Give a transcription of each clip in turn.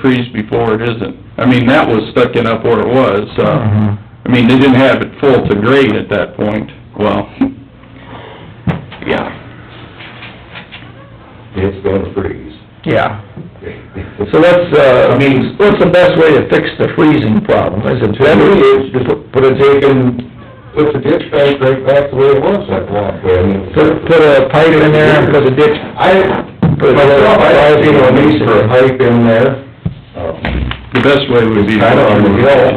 freeze before it isn't. I mean, that was sticking up where it was, so, Mm-hmm. I mean, they didn't have it full to grade at that point, well, yeah. It's gonna freeze. Yeah, so that's, uh, I mean, what's the best way to fix the freezing problem? Is it better to just put a dig and, Put the ditch back right back the way it was that walkway, I mean. put, put a pipe in there and put a ditch? I, Put a Well, little I pipe think in it'll need for a there. pipe in there, um, The best way would be. kind of on the hill.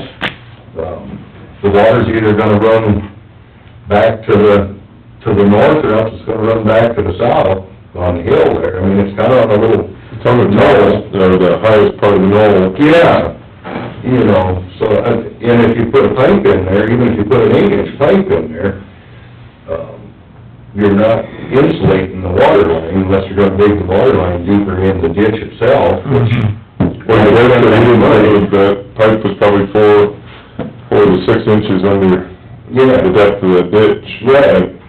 Um, The water's either gonna run back to the, to the north, or else it's gonna run back to the south on the hill there. I mean, it's kind of on a little... It's on the knoll, or the highest part of the knoll. Yeah, you know, so, uh, and if you put a pipe in there, even if you put an eight-inch pipe in there, um, you're not insulating the water line unless you're gonna dig the water line deeper in the ditch itself, Mm-hmm. which Well, the rest of it, uh, the pipe was probably four, four to six inches under Yeah, the depth of the ditch. Right.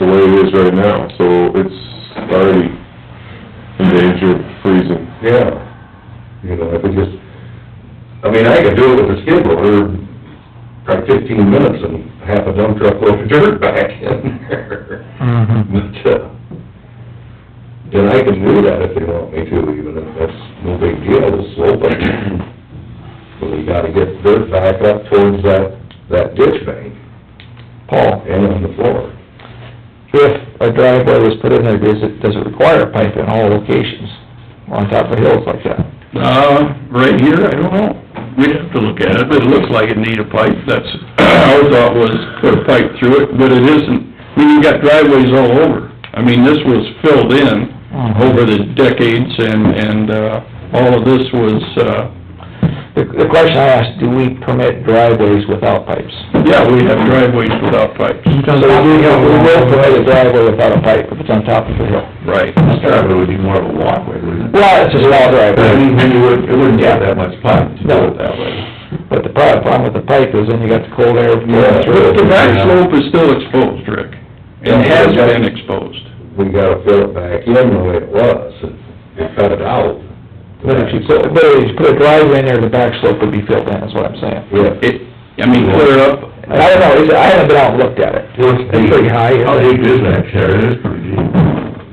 The way it is right now, so it's already in danger of freezing. yeah, you know, if it just, I mean, I could do it with a skid loader, probably fifteen minutes and half a dump truck load of dirt back in there. Mm-hmm. But, uh, then I can do that if they want me to, even if that's no big deal, it's slow, but, but we gotta get dirt back up towards that, that ditch bank Paul, and on the floor. if a driveway was put in there, does it, does it require a pipe in all locations on top of hills like that? Uh, right here, I don't know. We'd have to look at it, but it looks like it need a pipe. That's, our thought was put a pipe through it, but it isn't. I mean, you got driveways all over. I mean, this was filled in Mm-hmm. over the decades and, and, uh, all of this was, uh, The, the question I asked, do we permit driveways without pipes? yeah, we have driveways without pipes. So we will, we will permit a driveway without a pipe if it's on top of a hill. Right. This driveway would be more of a walkway, wouldn't Well, it's just a lot of driveway, then you wouldn't, it wouldn't get that much pipe to do it that way. but the prob- problem with the pipe is then you got the cold air Yeah. going through. But the back slope is still exposed, Rick. It has been exposed. we gotta fill it back in the way it was, and we cut it out. But if you put, but if you put a driveway in there, the back slope would be filled in, is what I'm saying. Yeah. It, I mean, clear up, And I don't know, is it- I haven't been out and looked at it. It's pretty high, isn't it? Oh, How deep is that, Terry? It is pretty deep.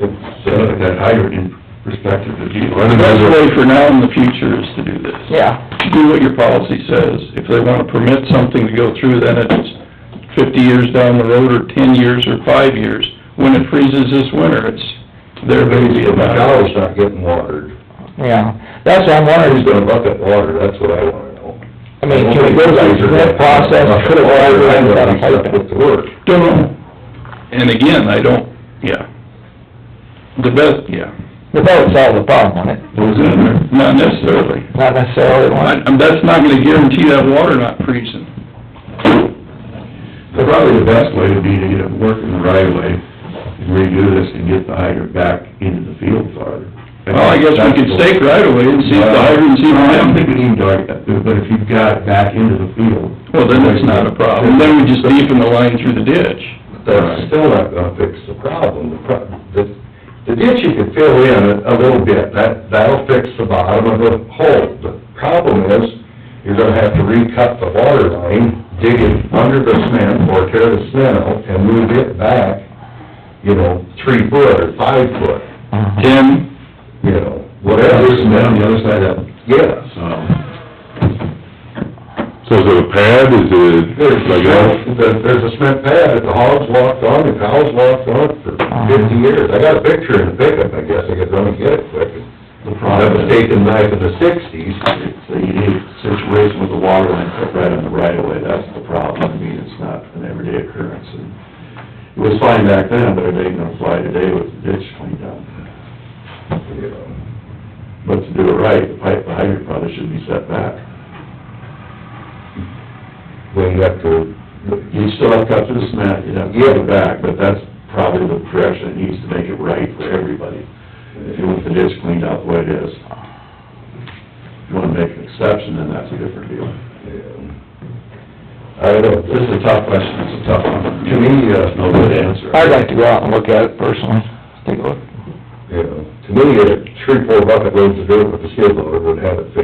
It's, So look at uh, that hydrant in perspective, the deep. the best way for now and the future is to do this. Yeah, do what your policy says. If they wanna permit something to go through, then it's fifty years down the road, or ten years, or five years. When it freezes this winter, it's their baby. if my cow's not getting watered, yeah, that's what I'm who's wondering, gonna bucket water, that's what I wanna know. I mean, can we go through that process, put a driveway in without a pipe in? With the work, Don't know. And again, I don't, yeah. The best, yeah, The boat solves the problem, wouldn't it? Goes in there. not necessarily. Not necessarily, I, one. I'm- that's not gonna guarantee that water not freezing. So Probably the best way would be to get it working the right way and redo this and get the hydrant back into the field farther. Well, I guess we could stake right away and see if the hydrants even I don't have, think we need to argue that, but if you've got it back into the field. well, then it's not a problem. Then we just deepen the line through the ditch. but that's still not gonna fix the problem. The pro- The, the ditch you can fill in a, a little bit, that, that'll fix the bottom of the hole. The problem is, you're gonna have to recut the water line, dig it under the cement or tear the cement out and move it back, you know, three foot or five foot, Uh-huh. Tim, you know, Yeah, whatever. there's some down the other side of it, Yes. so. So is it a pad, is it There's a like a, cement, there- there's a cement pad that the hogs walked on, the cows walked on for fifty years. I got a picture in the pickup, I guess, I could run and get it quick. The That problem was is- taken back in the sixties. It's a unique situation with the water line cut right on the right of way, that's the problem, I mean, it's not an everyday occurrence, and it was fine back then, but it ain't gonna fly today with the ditch cleaned up. But to do it right, the pipe behind your probably should be set back. When you have to, You still have to cut through the cement, you have to get it back, but that's probably the direction it needs to make it right for everybody. If you want the ditch cleaned out the way it is, if you wanna make an exception, then that's a different deal. I don't know, This is a tough question, it's a tough one. To me, uh, No good answer. I'd like to go out and look at it personally, take a look. you know, to to me, a three, four bucket loads of dirt with a skid loader would have it fixed